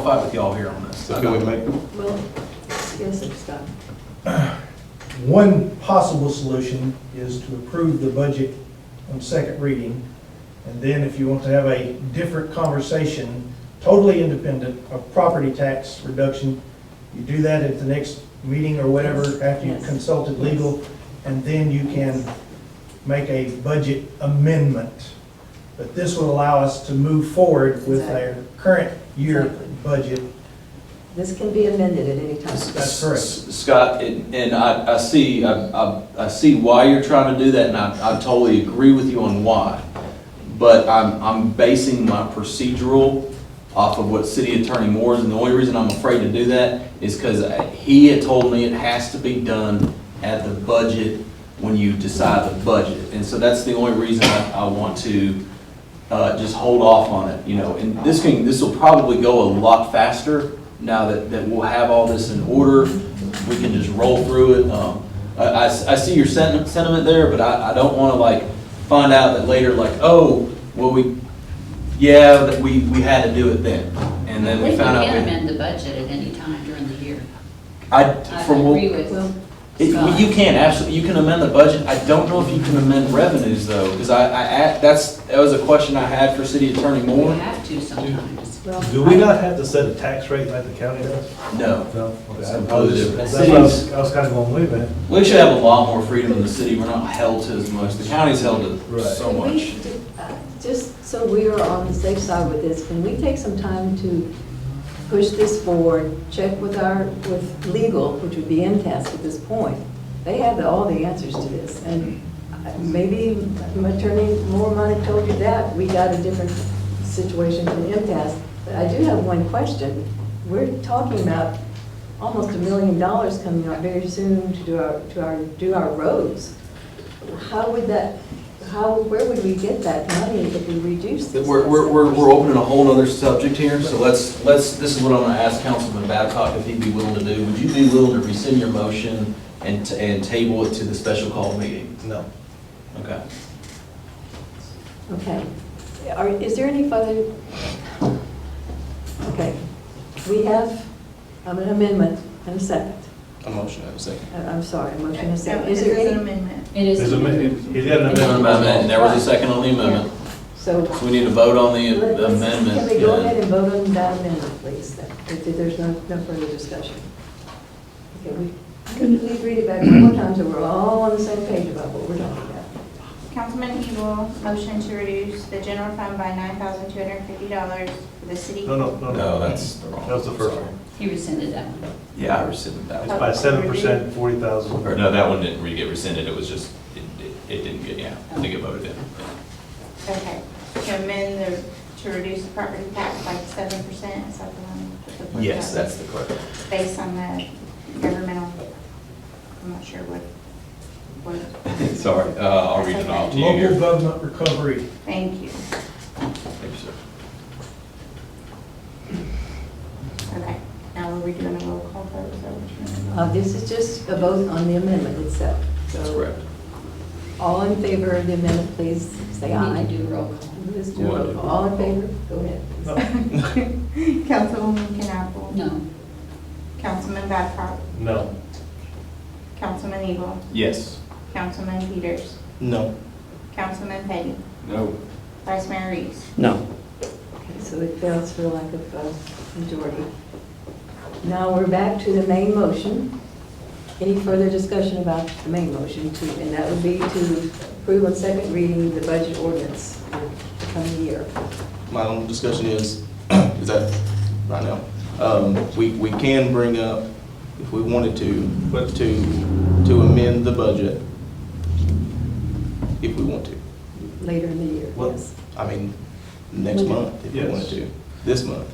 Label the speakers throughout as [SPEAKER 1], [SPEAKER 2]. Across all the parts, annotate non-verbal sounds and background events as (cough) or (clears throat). [SPEAKER 1] I'll fight with y'all here on this.
[SPEAKER 2] So can we make,
[SPEAKER 3] Well, yes, it's done.
[SPEAKER 4] One possible solution is to approve the budget on second reading, and then if you want to have a different conversation, totally independent of property tax reduction, you do that at the next meeting or whatever, after you've
[SPEAKER 3] Yes.
[SPEAKER 4] consulted legal, and then you can make a budget amendment. But this will allow us to move forward with our current year
[SPEAKER 3] Exactly.
[SPEAKER 4] budget.
[SPEAKER 3] This can be amended at any time.
[SPEAKER 4] That's correct.
[SPEAKER 5] S- Scott, and and I, I see, I, I- I see why you're trying to do that, and I, I totally agree with you on why. But I'm, I'm basing my procedural off of what City Attorney Moore's, and the only reason I'm afraid to do that is because he had told me it has to be done at the budget when you decide the budget. And so that's the only reason I, I want to, uh, just hold off on it, you know, and this can, this will probably go a lot faster now that, that we'll have all this in order, we can just roll through it. Um, I, I s- I see your sentiment, sentiment there, but I, I don't wanna like find out that later, like, oh, well, we, yeah, that we, we had to do it then, and then we
[SPEAKER 6] We
[SPEAKER 5] found out.
[SPEAKER 6] can
[SPEAKER 5] we-
[SPEAKER 6] amend the budget at any time during the year.
[SPEAKER 5] I,
[SPEAKER 6] I
[SPEAKER 5] from what,
[SPEAKER 6] agree with
[SPEAKER 3] Well,
[SPEAKER 5] it- well, you can, absolutely, you can amend the budget. I don't know if you can amend revenues though, cause I, I, act- that's, that was a question I had for City Attorney
[SPEAKER 6] We
[SPEAKER 5] Moore.
[SPEAKER 6] have to sometimes.
[SPEAKER 3] well,
[SPEAKER 2] do we not have to set a tax rate like the county does?
[SPEAKER 5] No.
[SPEAKER 2] No. Okay,
[SPEAKER 5] It's
[SPEAKER 2] I- I
[SPEAKER 5] completely
[SPEAKER 2] was,
[SPEAKER 5] different.
[SPEAKER 2] that's what I was, I was kind of going, wait a minute.
[SPEAKER 5] We should have a lot more freedom in the city. We're not held to as much. The county's held to
[SPEAKER 2] Right.
[SPEAKER 5] so
[SPEAKER 3] can we,
[SPEAKER 5] much.
[SPEAKER 3] uh, Just so we are on the safe side with this, can we take some time to push this forward, check with our, with legal, which would be MTS at this point? They have the- all the answers to this, and uh, maybe Attorney Moore might have told you that, we got a different situation from MTS. But I do have one question. We're talking about almost a million dollars coming out very soon to do our, to our, do our roads. How would that, how, where would we get that money if we reduce
[SPEAKER 5] We're,
[SPEAKER 3] this?
[SPEAKER 5] we're, we're we're opening a whole nother subject here, so let's, let's, this is what I'm gonna ask Councilman Babcock if he'd be willing to do. Would you be willing to rescind your motion and, t- and table it to the special call meeting?
[SPEAKER 2] No.
[SPEAKER 5] Okay.
[SPEAKER 3] Okay. Are, is there any further? Okay. We have um, an amendment and a second.
[SPEAKER 5] A motion, I have a second.
[SPEAKER 3] I- I'm sorry, a motion and a
[SPEAKER 7] No,
[SPEAKER 3] second.
[SPEAKER 7] It
[SPEAKER 3] Is there
[SPEAKER 7] is an
[SPEAKER 3] any?
[SPEAKER 7] amendment.
[SPEAKER 6] It is.
[SPEAKER 2] There's a, mi- he's got an
[SPEAKER 5] An amendment,
[SPEAKER 2] amendment.
[SPEAKER 5] there was a second on the amendment.
[SPEAKER 3] So.
[SPEAKER 5] So we need to vote on the
[SPEAKER 3] let-
[SPEAKER 5] the
[SPEAKER 3] let's-
[SPEAKER 5] amendment.
[SPEAKER 3] Can we go
[SPEAKER 5] yeah.
[SPEAKER 3] ahead and vote on that amendment, please, then, if there's no, no further discussion? Okay, we, can you please read it back one more time so we're all on the same page about what we're talking about?
[SPEAKER 7] Councilman Evil, motion to reduce the general fund by nine thousand two hundred and fifty dollars for the city.
[SPEAKER 2] No, no, no.
[SPEAKER 5] No, that's the wrong.
[SPEAKER 2] That was the first
[SPEAKER 5] sorry.
[SPEAKER 2] one.
[SPEAKER 6] He rescinded that one.
[SPEAKER 5] Yeah, I rescinded that
[SPEAKER 2] It's
[SPEAKER 5] one.
[SPEAKER 2] by seven percent, forty thousand.
[SPEAKER 5] Or no, that one didn't really get rescinded, it was just, it, it- it didn't get, yeah, I think it voted in.
[SPEAKER 7] Okay, to amend the, to reduce the property tax by seven percent, is that the one? with the four
[SPEAKER 5] Yes,
[SPEAKER 7] thousand?
[SPEAKER 5] that's the correct.
[SPEAKER 7] Based on the governmental, I'm not sure what, what,
[SPEAKER 5] (laughs) Sorry, uh, I'll read it off to you
[SPEAKER 4] Local
[SPEAKER 5] here.
[SPEAKER 4] government recovery
[SPEAKER 7] thank you.
[SPEAKER 5] Thank you, sir.
[SPEAKER 7] Okay, now we're redoing a roll call vote, is that what
[SPEAKER 3] Uh, this is just a vote on the amendment itself. So
[SPEAKER 5] That's correct.
[SPEAKER 3] All in favor of the amendment, please say
[SPEAKER 6] We
[SPEAKER 3] aye.
[SPEAKER 6] need to do roll call.
[SPEAKER 3] Let's do a roll call. All in favor? Go ahead. please.
[SPEAKER 7] you're doing? (laughs) Councilwoman Knappel.
[SPEAKER 6] No,
[SPEAKER 7] Councilman Babcock.
[SPEAKER 2] No.
[SPEAKER 7] Councilman Evil.
[SPEAKER 5] Yes.
[SPEAKER 7] Councilman Peters.
[SPEAKER 2] No.
[SPEAKER 7] Councilman Petty.
[SPEAKER 5] No.
[SPEAKER 7] Vice Mayor Reese.
[SPEAKER 3] Okay, So it fails for lack of uh, majority. Now we're back to the main motion. Any further discussion about the main motion too? And that would be to approve on second reading the budget ordinance for the coming year.
[SPEAKER 8] my own discussion is, (clears throat) is that right now, um, we, we can bring up, if we wanted to, but to, to amend the budget, if we want to.
[SPEAKER 3] Later in the year,
[SPEAKER 2] What-
[SPEAKER 3] yes.
[SPEAKER 8] I mean, next month, if we wanted to, this month.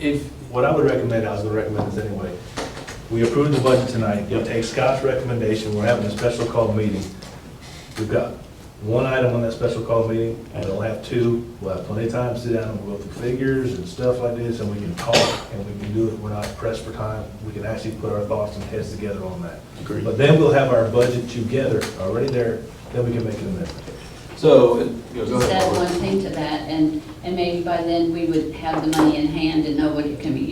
[SPEAKER 2] If, what I would recommend, I was gonna recommend this anyway, we approve the budget tonight, we take Scott's recommendation, we're having a special call meeting. We've got one item on that special call meeting, and we'll have two, we'll have plenty of time to sit down and go through figures and stuff like this, and we can talk, and we can do it, we're not pressed for time, we can actually put our thoughts and heads together on that.
[SPEAKER 8] Agreed.
[SPEAKER 2] But then we'll have our budget together, already there, then we can make an amendment.
[SPEAKER 8] So, it- you know, go
[SPEAKER 6] Just
[SPEAKER 8] ahead.
[SPEAKER 6] add
[SPEAKER 8] Laura.
[SPEAKER 6] one thing to that, and, and maybe by then we would have the money in hand and know what it can be